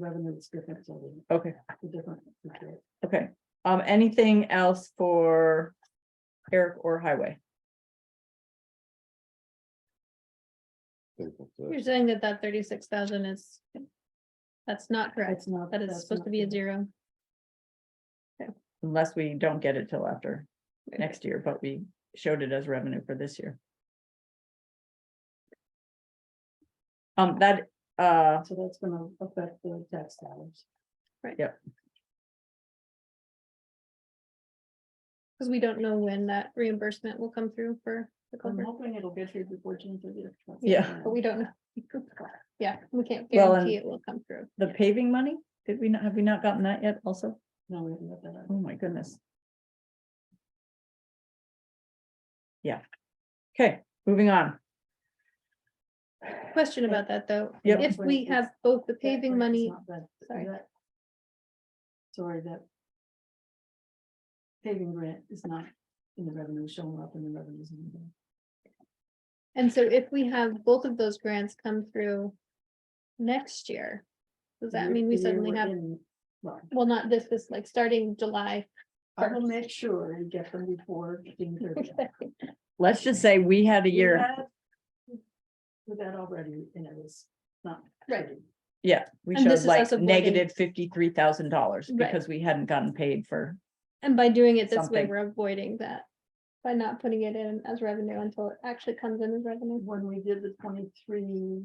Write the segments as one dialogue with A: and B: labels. A: revenue is different, so we-
B: Okay,
A: the different. okay.
B: okay. Um, anything else for Eric or Highway?
C: You're saying that that thirty-six thousand is, that's not correct.
A: It's not.
C: That is
A: that's
C: supposed
A: not
C: to be a
A: good.
C: zero.
B: Unless we don't get it till after next year, but we showed it as revenue for this year. Um, that, uh,
A: So that's gonna affect the tax dollars.
C: Because we don't know when that reimbursement will come through for the
A: I'm
C: culvert,
A: hoping it'll get here before June thirtieth.
B: Yeah.
C: but we don't know. Yeah, we can't
B: Well,
C: guarantee
B: and
C: it will come through.
B: the paving money, did we not, have we not gotten that yet also?
A: No, we haven't got that. out.
B: Oh, my goodness. Yeah. Okay, moving on.
C: Question about that, though.
B: Yep.
C: If we have both the paving
A: That way it's
C: money,
A: not that-
C: sorry.
A: that- Sorry, that. Paving grant is not in the revenue, showing up in the revenues. in the-
C: and so if we have both of those grants come through next year, does that
A: the
C: mean we
A: year
C: suddenly
A: we're
C: have,
A: in. Well,
C: well, not this, this, like, starting July?
A: I will
C: first.
A: make sure you get them before June thirtieth.
B: Let's just say we had
A: We
B: a year.
A: had- With that already, and it was not.
C: Right.
A: pretty.
B: Yeah, we
C: And this
B: showed
C: is us
B: like
C: avoiding-
B: negative fifty-three thousand dollars
C: Right.
B: because we hadn't gotten paid for,
C: And by doing it this way,
B: Something.
C: we're avoiding that. By not putting it in as revenue until it actually comes in as revenue.
A: When we did the twenty-three.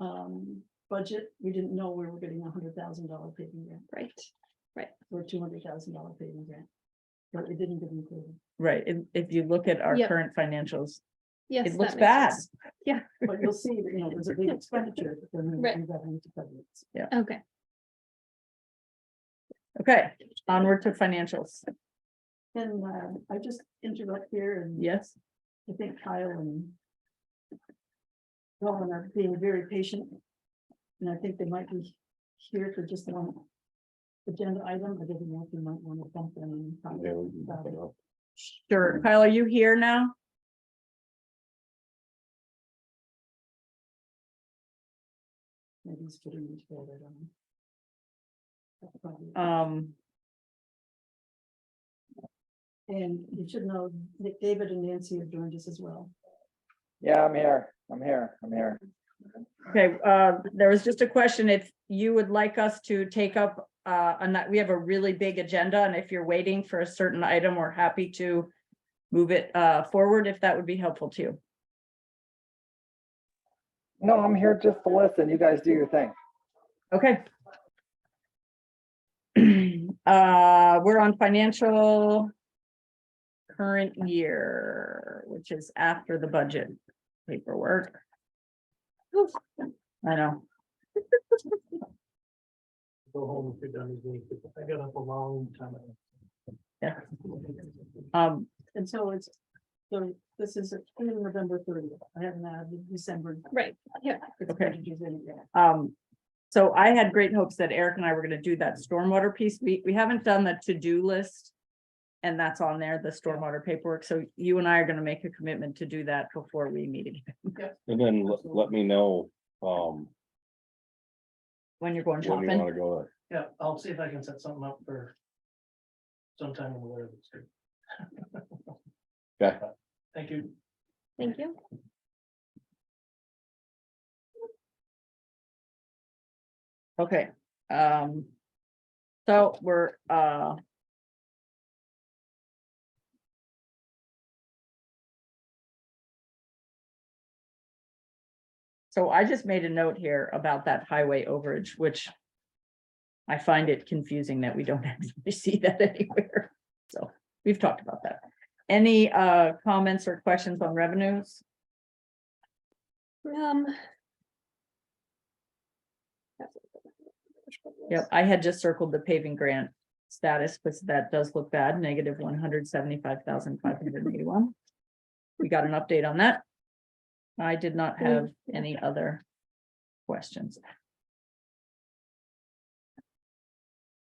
A: Um, budget, we didn't know we were getting a hundred thousand dollar paving grant
C: Right.
A: or two hundred thousand dollar paving grant. But it didn't get included,
B: right? If, if you look at our
C: Yep.
B: current financials,
C: Yes.
B: it
C: that
B: looks
C: makes
B: bad.
C: sense.
A: but you'll see that, you know, there's a big expenditure, but then
C: Right.
A: we revenue to cover it.
C: Okay.
B: Okay, onward to financials.
A: And uh, I just interrupt here and
B: Yes,
A: I think Kyle and. Rowan are being very patient. And I think they might be here for just one. Agenda item, I didn't know if you might want to bump them and talk
D: Yeah, we can
A: about
D: pick
A: it.
D: it up.
B: sure. Kyle, are you here now?
A: Maybe he's putting them together, I don't know. That's probably-
B: Um,
A: And you should know that David and Nancy have joined us as well.
E: Yeah, I'm here. I'm here. I'm here.
B: okay, uh, there was just a question if you would like us to take up, uh, and that, we have a really big agenda and if you're waiting for a certain item, we're happy to move it, uh, forward if that would be helpful to you.
E: No, I'm here just to listen. You guys do your thing.
B: Okay. Uh, we're on financial current year, which is after the budget paperwork. I know,
F: go home if you're done with me, 'cause I got up a long time ago.
B: Yeah. um,
A: And so it's, so this is in November thirtieth. I haven't had the December.
C: Right. Yeah.
A: expenditures in yet.
B: um, so I had great hopes that Eric and I were gonna do that stormwater piece. We, we haven't done the to-do list. And that's on there, the stormwater paperwork. So you and I are gonna make a commitment to do that before we meet again,
D: And then let, let me know, um,
B: when you're going
D: when you
B: shopping.
D: wanna go,
F: Yeah, I'll see if I can set something up for sometime in the winter. that's good.
D: Okay.
F: Thank you.
C: Thank you.
B: Okay, um. So we're, uh. So I just made a note here about that highway overage, which. I find it confusing that we don't actually see that anywhere. So we've talked about that. Any uh comments or questions on revenues?
C: Um.
B: Yep, I had just circled the paving grant status, but that does look bad, negative one hundred seventy-five thousand five hundred and eighty-one. We got an update on that. I did not
C: Mm.
B: have any other questions.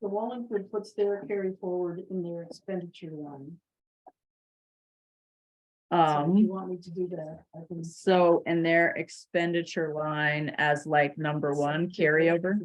A: The Wallingford puts their carry forward in their expenditure line. So if you
B: Um,
A: want me to do that, I can
B: so in their expenditure line as like number one carryover.